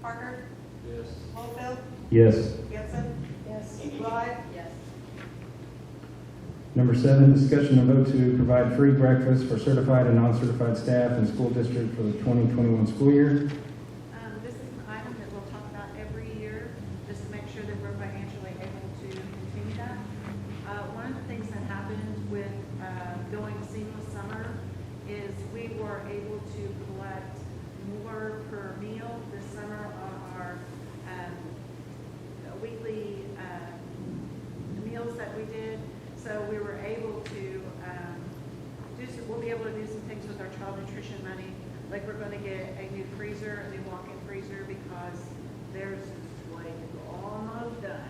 Parker, Yes. Littlefield, Yes. Gibson, Yes. Rye, Yes. Number seven, discussion and vote to provide free breakfast for certified and non-certified staff in school district for the 2021 school year. Um, This is an item that we'll talk about every year, just to make sure that we're financially able to continue that. Uh, One of the things that happened with uh, going seamless summer is we were able to collect more per meal this summer on our um, weekly um, meals that we did. So we were able to um, do some, we'll be able to do some things with our child nutrition money, like we're gonna get a new freezer, a new walk-in freezer, because theirs is like almost done.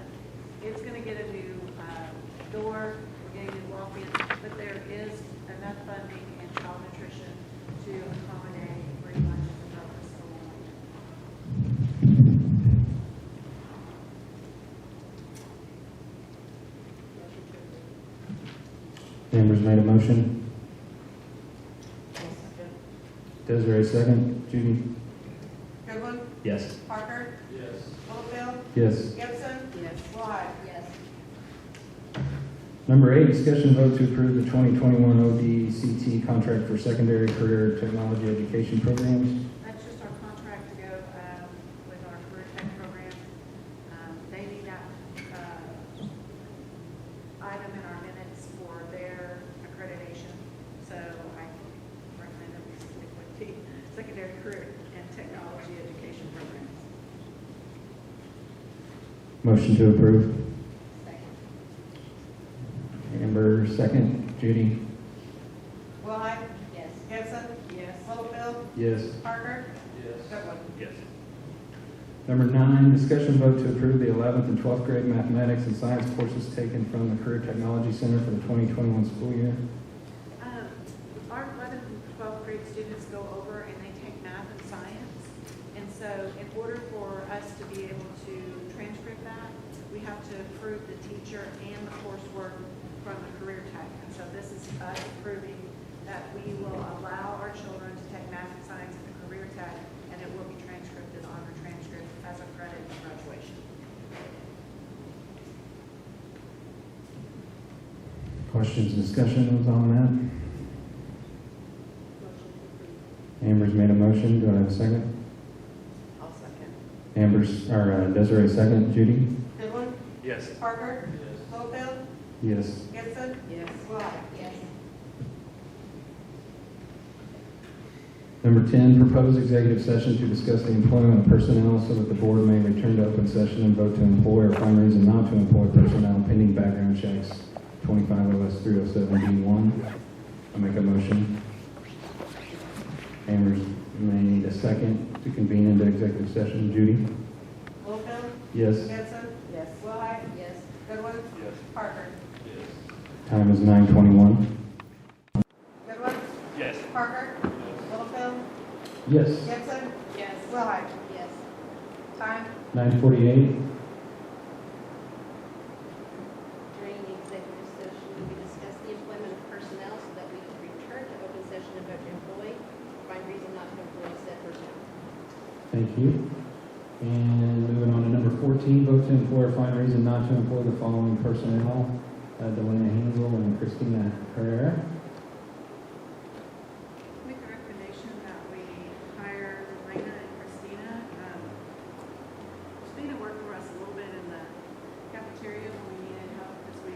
It's gonna get a new, uh, door, we're getting a new walk-in, but there is enough funding in child nutrition to accommodate free lunches throughout the school. Amber's made a motion. Desiree second. Judy? Goodwin, Yes. Parker, Yes. Littlefield, Yes. Gibson, Yes. Rye, Yes. Number eight, discussion and vote to approve the 2021 ODCT contract for secondary career technology education programs. That's just our contract to go, um, with our career tech program. Um, they need that, uh, item in our minutes for their accreditation. So I recommend that we stick with the secondary career and technology education programs. Motion to approve. Second. Amber second. Judy? Rye, Yes. Gibson, Yes. Littlefield, Yes. Parker, Yes. Goodwin. Yes. Number nine, discussion vote to approve the 11th and 12th grade mathematics and science courses taken from the Career Technology Center for the 2021 school year. Um, Our 11th and 12th grade students go over and they take math and science. And so in order for us to be able to transcript that, we have to approve the teacher and the coursework from the career tech. And so this is us approving that we will allow our children to take math and science at the career tech, and it will be transcribed on our transcript as a credit at graduation. Questions, discussions on that? Amber's made a motion, do I have a second? I'll second. Amber's, or uh, Desiree second, Judy? Goodwin, Yes. Parker, Yes. Littlefield, Yes. Gibson, Yes. Rye. Yes. Number 10, propose executive session to discuss the employment of personnel so that the board may return to open session and vote to employ or find reason not to employ personnel pending background checks, 25 OS 307B1. I make a motion. Amber's may need a second to convene into executive session. Judy? Littlefield, Yes. Gibson, Yes. Rye, Yes. Goodwin, Yes. Parker, Yes. Time is 9:21. Goodwin, Yes. Parker, Yes. Littlefield, Yes. Gibson, Yes. Rye. Yes. Time, 9:48. During the executive session, we discussed the employment of personnel so that we could return to open session and vote to employ, find reason not to employ said personnel. Thank you. And moving on to number 14, vote to employ or find reason not to employ the following personnel, uh, Delana Hansel and Christina Herrera. Make a recommendation that we hire Elena and Christina. Um, Christina worked for us a little bit in the cafeteria when we needed help because we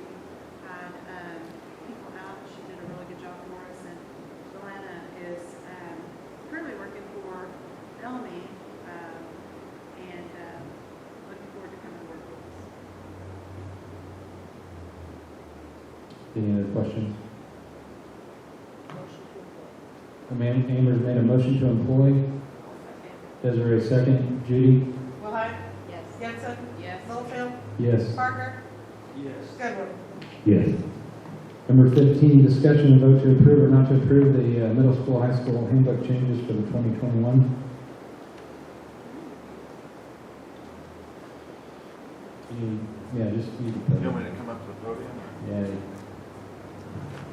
had um, people out. She did a really good job for us. And Elena is um, currently working for Elmy um, and um, looking forward to coming to work with us. Any other questions? Motion to employ. Amanda Chambers made a motion to employ. Desiree second. Judy? Rye, Yes. Gibson, Yes. Littlefield, Yes. Parker, Yes. Goodwin. Yes. Number 15, discussion and vote to approve or not to approve the uh, middle school, high school handbook changes for the 2021. You- Yeah, just. You You want me to come up to the podium? Yeah.